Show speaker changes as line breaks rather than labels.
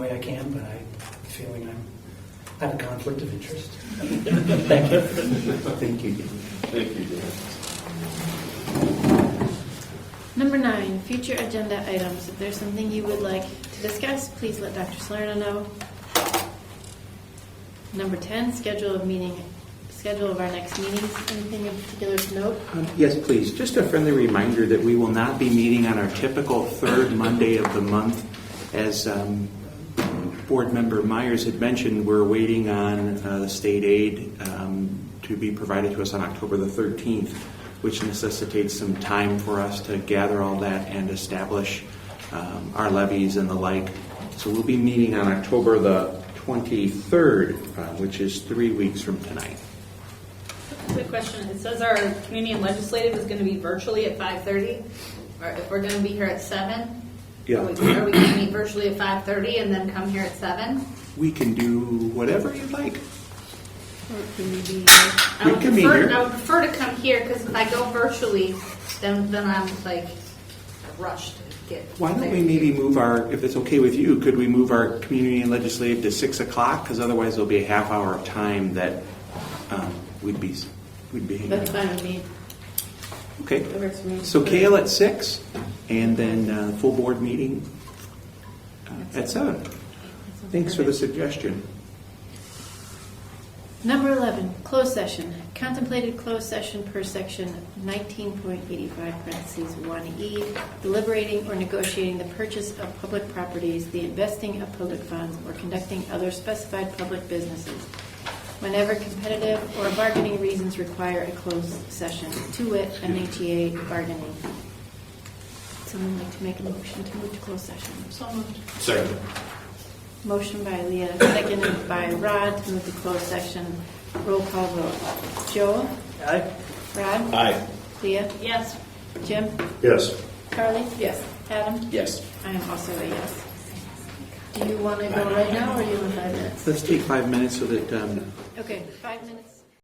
can, but I have a feeling I'm, I have a conflict of interest. Thank you.
Thank you. Thank you, Dan.
Number nine, future agenda items. If there's something you would like to discuss, please let Dr. Salerno know. Number ten, schedule of meeting, schedule of our next meetings. Anything in particular to note?
Um, Yes, please. Just a friendly reminder that we will not be meeting on our typical third Monday of the month. As um, Board Member Myers had mentioned, we're waiting on uh, the state aid um, to be provided to us on October the 13th, which necessitates some time for us to gather all that and establish um, our levies and the like. So we'll be meeting on October the 23rd, uh, which is three weeks from tonight.
Quick question. It says our community and legislative is going to be virtually at five thirty. Or if we're going to be here at seven?
Yeah.
Are we going to meet virtually at five thirty and then come here at seven?
We can do whatever you'd like.
Or can we be-
I
We
would
can be
prefer-
here.
I would prefer to come here because if I go virtually, then, then I'm like rushed to get.
Why don't
there.
we maybe move our, if it's okay with you, could we move our community and legislative to six o'clock? Because otherwise there'll be a half hour of time that um, we'd be, we'd be hanging
That's
out.
fine with me.
Okay,
That works for me.
so Kale at six, and then uh, full board meeting uh, at seven. Thanks for the suggestion.
Number eleven, closed session. Contemplated closed session per section nineteen point eighty-five parentheses one E, deliberating or negotiating the purchase of public properties, the investing of public funds, or conducting other specified public businesses. Whenever competitive or bargaining reasons require a closed session, to wit, NHEA bargaining. Someone like to make a motion to move to closed session?
So moved.
Second.
Motion by Leah, seconded by Rod to move to closed session. Roll call vote. Joel? Rod?
Aye.
Leah?
Yes.
Jim?
Yes.
Carly? Yes. Adam?
Yes.
I am also a yes. Do you want to go right now or do you want five minutes?
Let's take five minutes so that um,
Okay, five minutes.